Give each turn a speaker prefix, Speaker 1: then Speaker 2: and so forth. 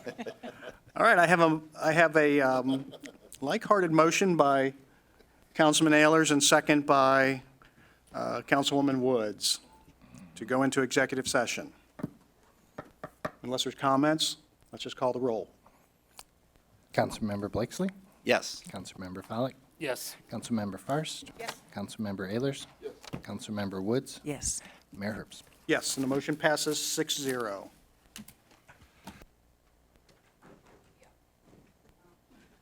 Speaker 1: All right, I have a, I have a um, like-hearted motion by Councilman Ayers and second by uh, Councilwoman Woods to go into executive session. Unless there's comments, let's just call the roll.
Speaker 2: Councilmember Blakesley,
Speaker 3: Yes.
Speaker 2: Councilmember Follak,
Speaker 4: Yes.
Speaker 2: Councilmember Fairst. Yes. Councilmember Ayers. Yes. Councilmember Woods.
Speaker 5: Yes.
Speaker 2: Mayor Herbst.
Speaker 1: Yes, and the motion passes 6-0.